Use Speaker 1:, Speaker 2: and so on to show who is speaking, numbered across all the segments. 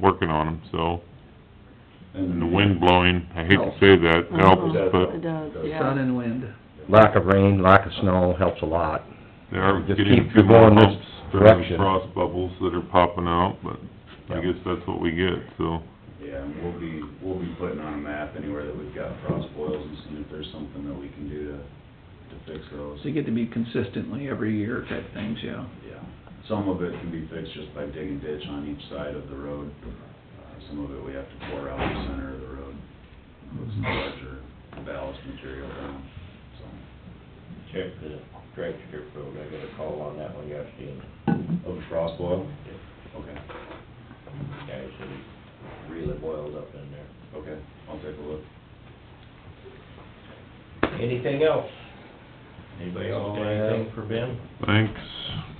Speaker 1: working on them, so, and
Speaker 2: And
Speaker 1: the wind blowing, I hate
Speaker 3: Oh.
Speaker 1: to say that, helps,
Speaker 3: Mm-hmm.
Speaker 2: Uh-huh.
Speaker 1: but
Speaker 4: It does,
Speaker 5: Sun
Speaker 4: yeah.
Speaker 5: and wind.
Speaker 3: Lack of rain, lack of snow helps a lot.
Speaker 1: they are
Speaker 3: Just
Speaker 1: getting
Speaker 3: keep
Speaker 1: two more
Speaker 3: going this
Speaker 1: humps for those
Speaker 3: direction.
Speaker 1: frost bubbles that are popping out, but I
Speaker 3: Yep.
Speaker 1: guess that's what we get, so.
Speaker 2: Yeah, and we'll be, we'll be putting on a map anywhere that we've got frost boils and seeing if there's something that we can do to, to fix those.
Speaker 5: So you get to be consistently every year type things, yeah.
Speaker 2: Yeah, some of it can be fixed just by digging ditch on each side of the road. Uh, Some of it we have to pour out the center of the road, put some larger ballast material down, so,
Speaker 6: check the drag strip road, I got a call on that one yesterday,
Speaker 2: of the frost boil.
Speaker 6: and
Speaker 2: Okay,
Speaker 6: the guy said he really boiled up in there.
Speaker 2: okay, I'll take a look.
Speaker 6: Anything else? Anybody else got anything for Ben?
Speaker 1: Thanks,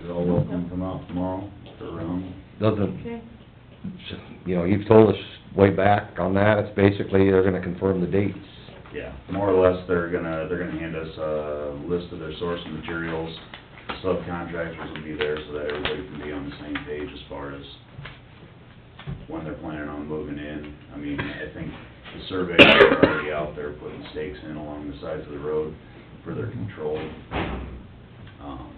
Speaker 2: You're all welcome to come out tomorrow, or around,
Speaker 3: Doesn't,
Speaker 4: Okay,
Speaker 3: you know, you've told us way back on that, it's basically they're gonna confirm the dates.
Speaker 2: Yeah, more or less, they're gonna, they're gonna hand us a list of their source materials. Subcontractors will be there so that everybody can be on the same page as far as when they're planning on moving in. I mean, I think the surveyors are already out there putting stakes in along the sides of the road for their control. Um,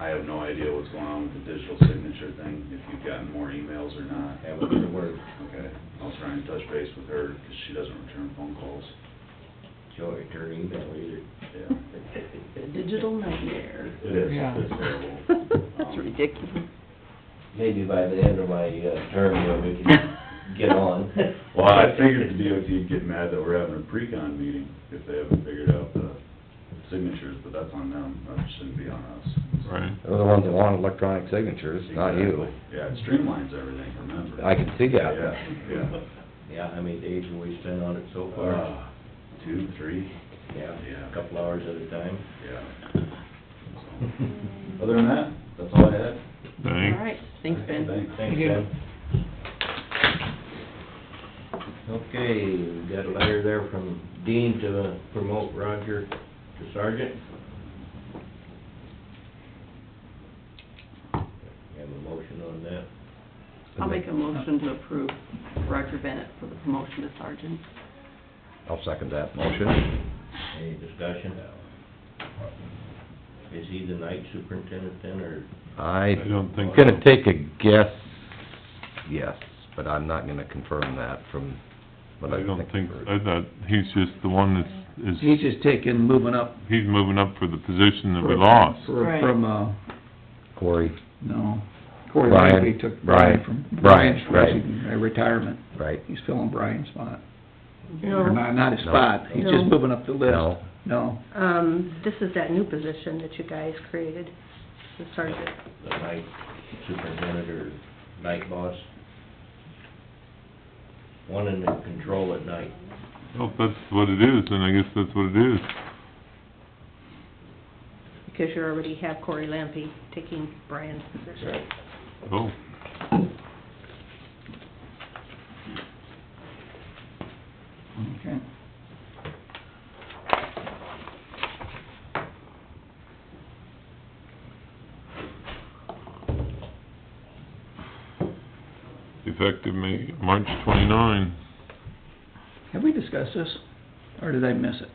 Speaker 2: I have no idea what's going on with the digital signature thing, if you've gotten more emails or not.
Speaker 6: Haven't heard a word.
Speaker 2: Okay, I'll try and touch base with her, 'cause she doesn't return phone calls.
Speaker 6: Joey, her email either.
Speaker 2: Yeah.
Speaker 4: the digital nightmare.
Speaker 2: It is,
Speaker 5: Yeah.
Speaker 2: it's terrible.
Speaker 4: That's ridiculous.
Speaker 6: Maybe by the end of my uh, term, you know, we can get on.
Speaker 2: Well, I figured the DOT would get mad that we're having a pre-con meeting if they haven't figured out the signatures, but that's on them, that shouldn't be on us.
Speaker 1: right?
Speaker 3: They're the ones that want electronic signatures, not you.
Speaker 2: Exactly. Yeah, it streamlines everything, remember?
Speaker 3: I can see that.
Speaker 2: Yeah, yeah.
Speaker 6: Yeah, how many days have we spent on it so far?
Speaker 2: Uh, Two, three,
Speaker 6: Yeah,
Speaker 2: yeah.
Speaker 6: a couple hours at a time.
Speaker 2: yeah. So, Other than that, that's all I had.
Speaker 4: All
Speaker 1: Thanks.
Speaker 4: right, thanks, Ben.
Speaker 2: Thanks.
Speaker 6: Thanks,
Speaker 5: you.
Speaker 6: Ben. Okay, we got a letter there from Dean to promote Roger to sergeant. Have a motion on that.
Speaker 4: I'll make a motion to approve Roger Bennett for the promotion to sergeant.
Speaker 3: I'll second that motion.
Speaker 6: Any discussion? Is he the night superintendent then, or
Speaker 3: I
Speaker 1: I don't think so.
Speaker 3: Gonna take a guess, yes, but I'm not gonna confirm that from what I
Speaker 1: I
Speaker 3: think.
Speaker 1: don't think,
Speaker 3: I've heard.
Speaker 1: I thought, he's just the one that's, is,
Speaker 5: He's just taking, moving up.
Speaker 1: he's moving up for the position that we
Speaker 5: for-
Speaker 1: lost.
Speaker 5: for-
Speaker 4: Right.
Speaker 5: From, uh,
Speaker 3: Corey,
Speaker 5: no, Corey
Speaker 3: Brian,
Speaker 5: Langley took
Speaker 3: Brian,
Speaker 5: Brian from.
Speaker 3: Brian, right.
Speaker 5: from Retirement.
Speaker 3: right?
Speaker 5: He's filling Brian's spot. Or
Speaker 7: No,
Speaker 5: not, not his
Speaker 3: No.
Speaker 5: spot, he's
Speaker 7: No.
Speaker 5: just moving up the list.
Speaker 3: No.
Speaker 5: No.
Speaker 7: um, this is that new position that you guys created, the sergeant.
Speaker 6: the night superintendent or night boss? One in the control at night.
Speaker 1: Well, if that's what it is, then I guess that's what it is.
Speaker 7: Because you already have Corey Lampy taking Brian's position.
Speaker 1: Oh,
Speaker 5: Okay.
Speaker 1: effective May, March twenty-nine.
Speaker 5: Have we discussed this, or did I miss it?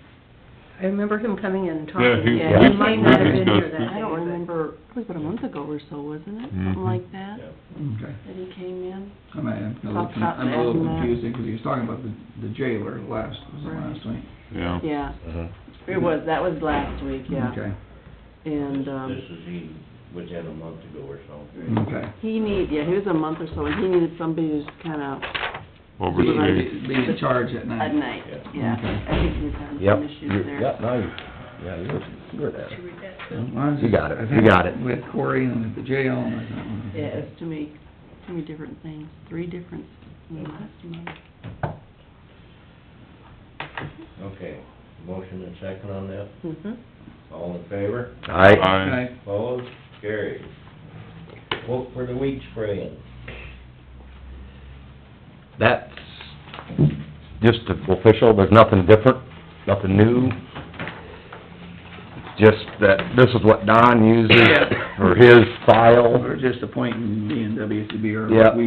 Speaker 7: I remember him coming in and
Speaker 1: Yeah,
Speaker 7: talking.
Speaker 1: he,
Speaker 4: Yeah.
Speaker 1: we,
Speaker 4: He might not have
Speaker 1: we
Speaker 7: been here
Speaker 1: discussed it.
Speaker 7: then.
Speaker 4: I don't remember, it was about a month ago or so, wasn't it?
Speaker 1: Mhm.
Speaker 4: Something like that,
Speaker 5: Okay.
Speaker 4: that he came in.
Speaker 5: I'm, I'm a little,
Speaker 4: Talk about
Speaker 5: I'm a little
Speaker 4: that.
Speaker 5: confused, because he was talking about the the jailer last, was the
Speaker 4: Right.
Speaker 5: last one.
Speaker 1: Yeah.
Speaker 4: Yeah,
Speaker 3: Mhm.
Speaker 4: it was, that was last week, yeah.
Speaker 5: Okay,
Speaker 4: And,
Speaker 6: This
Speaker 4: um,
Speaker 6: is, he was in a month ago or so.
Speaker 5: okay.
Speaker 4: he need, yeah, he was a month or so, and he needed somebody to just kind of,
Speaker 1: Overstate.
Speaker 5: Be- Be be in charge at night.
Speaker 4: at night, yeah.
Speaker 5: Mm. Okay.
Speaker 4: I think he was having
Speaker 3: Yep,
Speaker 4: some issues
Speaker 3: you're-
Speaker 4: there.
Speaker 3: yep, now you, yeah, you're, you're there.
Speaker 7: Did you read that?
Speaker 5: Well, I was-
Speaker 3: You got it,
Speaker 5: I've
Speaker 3: you
Speaker 5: had-
Speaker 3: got it.
Speaker 5: We had Corey and the jail, and I thought, well,
Speaker 4: Yeah, it's too many, too many different things, three different, in
Speaker 7: Mm-hmm.
Speaker 4: the last month.
Speaker 6: Okay, motion and second on that,
Speaker 4: Mm-hmm.
Speaker 6: all in favor,
Speaker 3: I,
Speaker 1: Aye.
Speaker 5: okay.
Speaker 6: opposed, carried. Vote for the weed spraying,
Speaker 3: that's just official, there's nothing different, nothing new. Just that this is what Don uses for his file.
Speaker 5: We're just appointing D and W to be our
Speaker 3: Yeah.
Speaker 5: weed